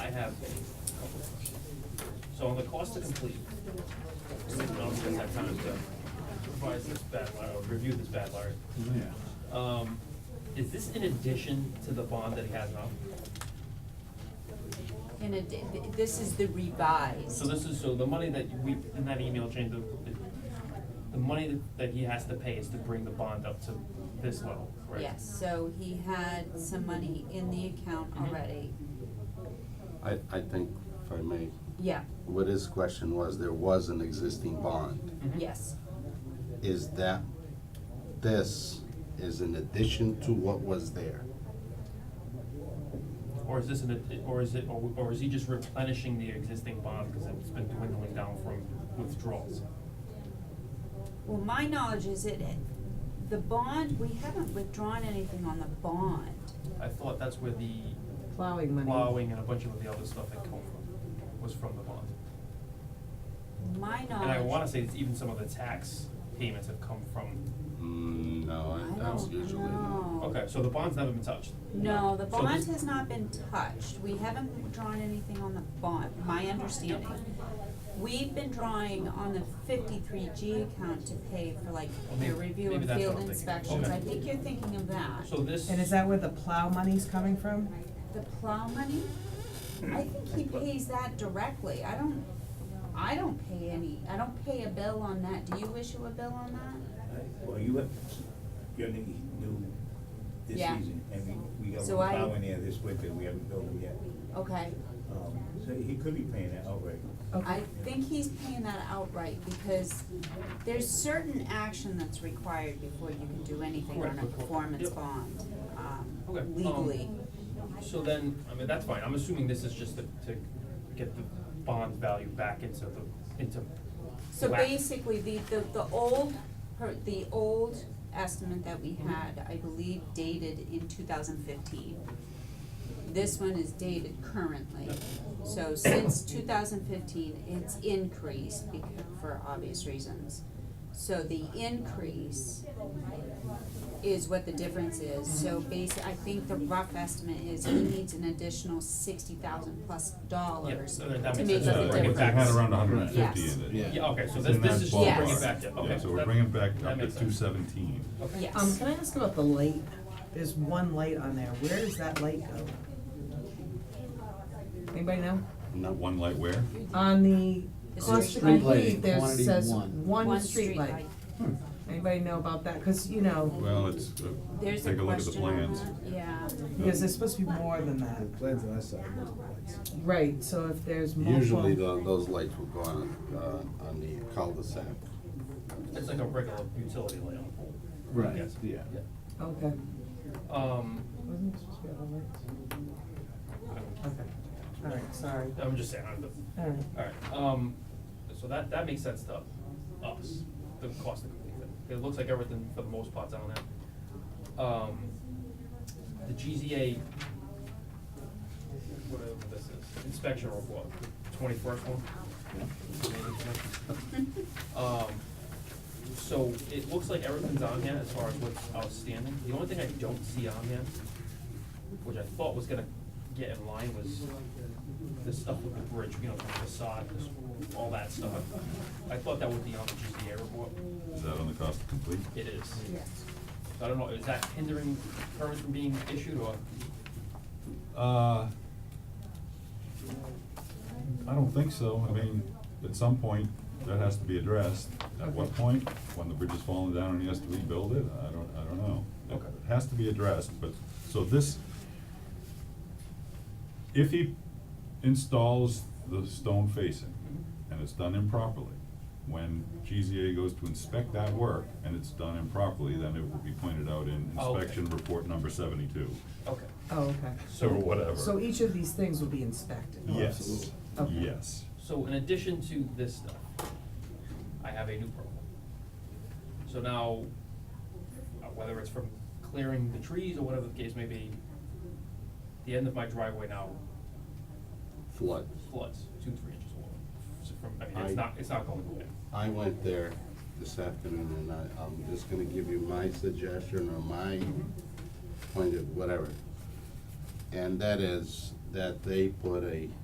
So on the cost to complete, we don't have time to revise this bad letter, or review this bad letter. Um, is this in addition to the bond that he has now? In a, d- th- this is the revised. So this is, so the money that we, in that email chain, the, the, the money that- that he has to pay is to bring the bond up to this level, right? Yes, so he had some money in the account Mhm. already, I, I think, if I may, yeah, what his question was, there was an existing bond. Mhm. yes, Is that, this is in addition to what was there? Or is this an, or is it, or, or is he just replenishing the existing bond, cause it's been dwindling down from withdrawals? well, my knowledge is it, it- the bond, we haven't withdrawn anything on the bond. I thought that's where the Plowing money. plowing and a bunch of the other stuff that come from, was from the bond. My knowledge. And I wanna say it's even some of the tax payments have come from, Mm, no, I I- that's don't usually not. know. okay, so the bond's never been touched. Oh. No, the So bond this- has not been touched, we haven't drawn anything on the bond, my understanding. We've been drawing on the fifty-three G account to pay for like Well, may- your review maybe of that's what field I'm thinking. inspections, Okay. I think you're thinking of that. So this. And is that where the plow money's coming from? The plow money, I think he pays that directly, I don't, I don't pay any, I don't pay a bill on that, do you issue a bill on that? Well, you have, your nigga new this Yeah. season, and we, we have a So I- plow in there this winter, we haven't built it yet. Okay, Um, so he could be paying that outright. I think he's paying that outright because there's certain action that's required before you can do anything on a Correct. performance Yep. bond, um, Okay, um, legally. So then, I mean, that's fine, I'm assuming this is just to, to get the bond value back into the, into So whack. basically, the, the, the old, per, the old estimate that we had, I believe dated in two thousand fifteen. This one is dated currently, so since two thousand fifteen, it's increased bec- for obvious reasons. So the increase is what the difference is, so Mm-hmm. basi- I think the rough estimate is he needs an additional sixty thousand plus dollars so to that- that make up the makes difference. sense. So bring it back. Had around hundred and fifty Yes. in it. Yeah. Yeah, okay, so It's this, this in that is just to bring Yes. it back, yeah, okay. Yeah, so we're that- bringing it back that up to makes sense. two seventeen. Yes. Um, can I ask about the light? There's one light on there. Where does that light go? Anybody know? No, One light where? On the The cost to street light. complete, there Quantity says one. one One streetlight. streetlight. Anybody know about that? Cause you know, Well, it's, uh, There's a take a look at the question on plans. that, yeah. because there's supposed to be more than that. plans on that side, multiple lights. Right, so if there's multiple. Usually tho- those lights will go on, uh, on the cul-de-sac. It's like a regular utility light on a pole. Right, Yes. yeah. Okay. Um, Wasn't it supposed to be all lights? Okay, alright, sorry, I'm just saying, I'm the, alright. Alright, um, so that, that makes sense to us, the cost to complete it. It looks like everything for the most part's on that. Um, the GZA, whatever this is, inspection report, twenty-first one. Um, so it looks like everything's on here as far as what's outstanding. The only thing I don't see on here, which I thought was gonna get in line was the stuff with the bridge, you know, the facade, this- all that stuff. I thought that would be on the GZA report. Is that on the cost to complete? It is. Yes. So I don't know, is that hindering permits from being issued or? Uh, I don't think so. I mean, at some point, that has to be addressed. At what point? When the bridge is falling down and he has to rebuild it? I don't, I don't know. It- Okay. It has to be addressed, but, so this, if he installs the stone facing and it's done improperly, when GZA goes to inspect that work and it's done improperly, then it will be pointed out in Oh, okay. inspection report number seventy-two, Okay. Oh, okay. or whatever. So each of these things will be inspected? Yes, Okay. yes. So in addition to this stuff, I have a new problem. So now, uh, whether it's from clearing the trees or whatever the case may be, the end of my driveway now Flood. floods two, three inches of water. So from, I mean, it's I- not, it's not going away. I went there this afternoon and I, I'm just gonna give you my suggestion or my point of whatever. And that is that they put a